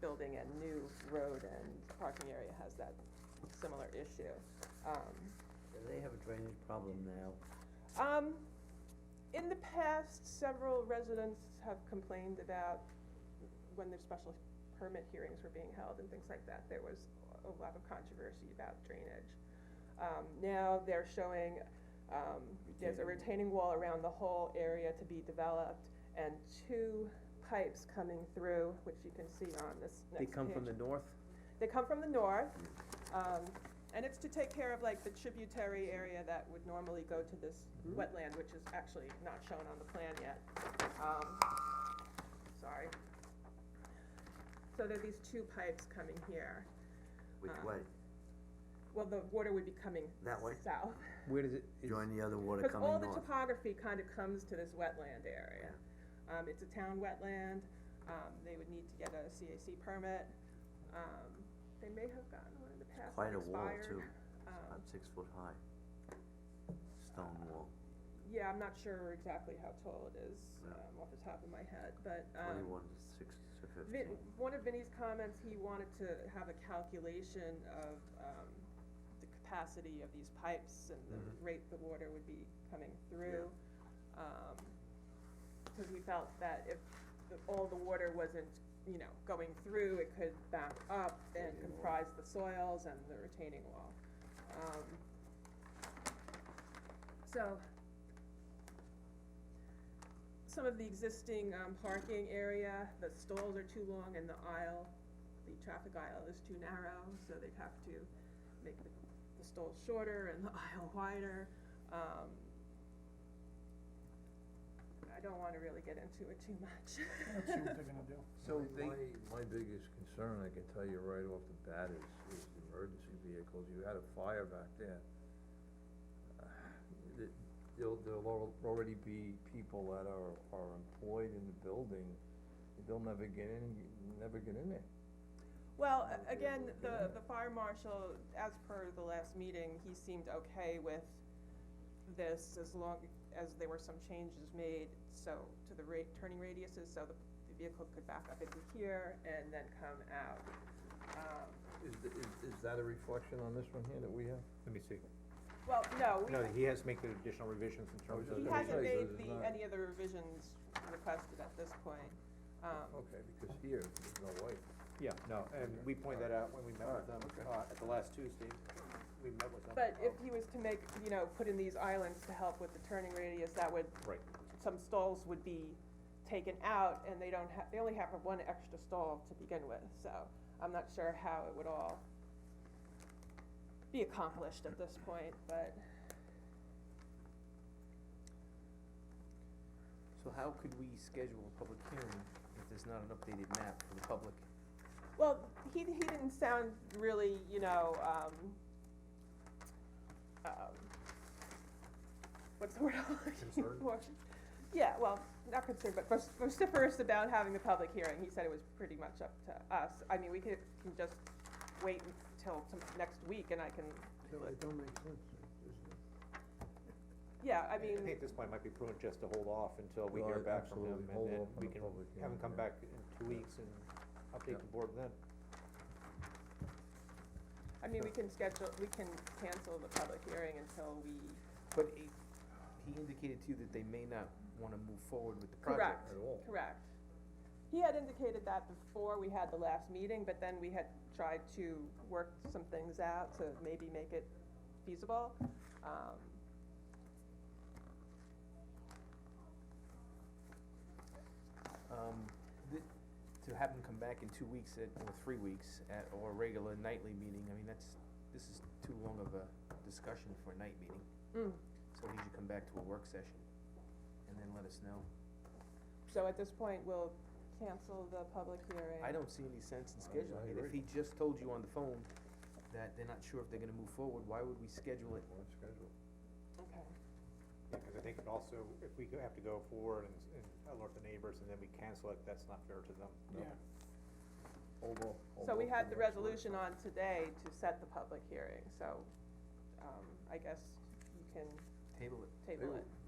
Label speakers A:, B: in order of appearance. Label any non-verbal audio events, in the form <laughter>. A: building a new road and parking area has that similar issue. Um,
B: They have a drainage problem now.
A: Um, in the past, several residents have complained about when their special permit hearings were being held and things like that, there was a lot of controversy about drainage. Um, now they're showing, um, there's a retaining wall around the whole area to be developed and two pipes coming through, which you can see on this next
C: They
A: page.
C: come from the north?
A: They come from the north, um, and it's to take care of like the tributary area that would normally go to this
B: Mm-hmm.
A: wetland, which is actually not shown on the plan yet. Um, sorry. So there are these two pipes coming here.
B: Which
A: Uh,
B: way?
A: Well, the water would be coming
B: That way?
A: south.
C: Where does it, is,
B: Join the other water
A: Because
B: coming
A: all the
B: north.
A: topography kind of comes to this wetland area. Um, it's a town wetland, um, they would need to get a CAC permit, um, they may have gotten one in the past,
B: Quite
A: it
B: a wall
A: expired.
B: too,
A: Um,
B: about six foot high. Stone wall,
A: yeah, I'm not sure exactly how tall it is,
B: Yeah.
A: um, off the top of my head, but, um,
B: twenty-one to six to
A: Vin,
B: fifteen.
A: one of Vinnie's comments, he wanted to have a calculation of, um, the capacity of these pipes and the
B: Mm-hmm.
C: Mhm.
A: rate the water would be coming through. Um, cause we felt that if the, all the water wasn't, you know, going through, it could back up and
B: Retaining wall.
A: comprise the soils and the retaining wall. Um, so, some of the existing, um, parking area, the stalls are too long and the aisle, the traffic aisle is too narrow, so they'd have to make the, the stall shorter and the <laughs> aisle wider, um. I don't wanna really get into it too much.
D: Let's see what they're gonna do.
C: so
E: My-
C: they,
E: My, my biggest concern, I can tell you right off the bat, is, is the emergency vehicles, you had a fire back there. Uh, th- There'll, there'll al- already be people that are, are employed in the building, they'll never get in, never get in there.
A: Well, a-
E: Okay,
A: again,
E: okay.
A: the, the fire marshal, as per the last meeting, he seemed okay with this as long as there were some changes made, so, to the rate, turning radiuses, so the the vehicle could back up into here and then come out. Um,
E: Is, th- is, is that a reflection on this one here that we have?
C: let me see.
A: Well, no, we-
C: No, he has to make the additional revisions in
E: I was
C: terms of.
E: just
A: he
E: gonna
A: hasn't
E: say,
A: made
E: this is
A: the,
E: not-
A: any of the revisions requested at this point. Um,
E: Okay, because here, there's no way.
C: Yeah, no, and we pointed that out when we met with them,
E: Alright, okay.
C: uh, at the last Tuesday, we met with them.
A: But if he was to make, you know, put in these islands to help with the turning radius, that would
C: Right,
A: some stalls would be taken out and they don't have, they only have one extra stall to begin with, so I'm not sure how it would all be accomplished at this point, but
F: So how could we schedule a public hearing if there's not an updated map for the public?
A: Well, he, he didn't sound really, you know, um, um, what's the word I'm looking
C: Concerned?
A: for? Yeah, well, not concerned, but vociferous- vociferous about having the public hearing. He said it was pretty much up to us. I mean, we could, can just wait until some, next week and I can,
E: That don't make sense,
A: yeah, I
C: I mean, I think
A: mean,
C: at this point it might be prudent just to hold off until we
E: Well,
C: hear back from them,
E: absolutely,
C: and
E: hold
C: then
E: off on
C: we
E: the
C: can
E: public
C: have them
E: hearing,
C: come
E: yeah.
C: back in two
E: Yeah.
C: weeks and update
E: Yeah.
C: the board then.
A: I mean, we can schedule, we can cancel the public hearing until we,
F: But he, he indicated to you that they may not wanna move forward with the project.
A: correct,
E: At all.
A: correct. He had indicated that before we had the last meeting, but then we had tried to work some things out to maybe make it feasible. Um,
F: Um, th- to have them come back in two weeks at, or three weeks at, or a regular nightly meeting, I mean, that's, this is too long of a discussion for a night meeting.
A: mm.
F: So he should come back to a work session and then let us know.
A: So at this point, we'll cancel the public hearing.
F: I don't see any sense in
E: I-
F: scheduling
E: I
F: it. If
E: agree.
F: he just told you on the phone that they're not sure if they're gonna move forward, why would we schedule it?
E: On schedule.
A: Okay.
C: Yeah, cause I think it also, if we go- have to go forward and, and alert the neighbors and then we cancel it, that's not fair to them.
D: Yeah,
E: Hold off, hold
A: So we had
E: off till
A: the
E: next week.
A: resolution on today to set the public hearing, so, um, I guess you can
F: Table it.
A: table it.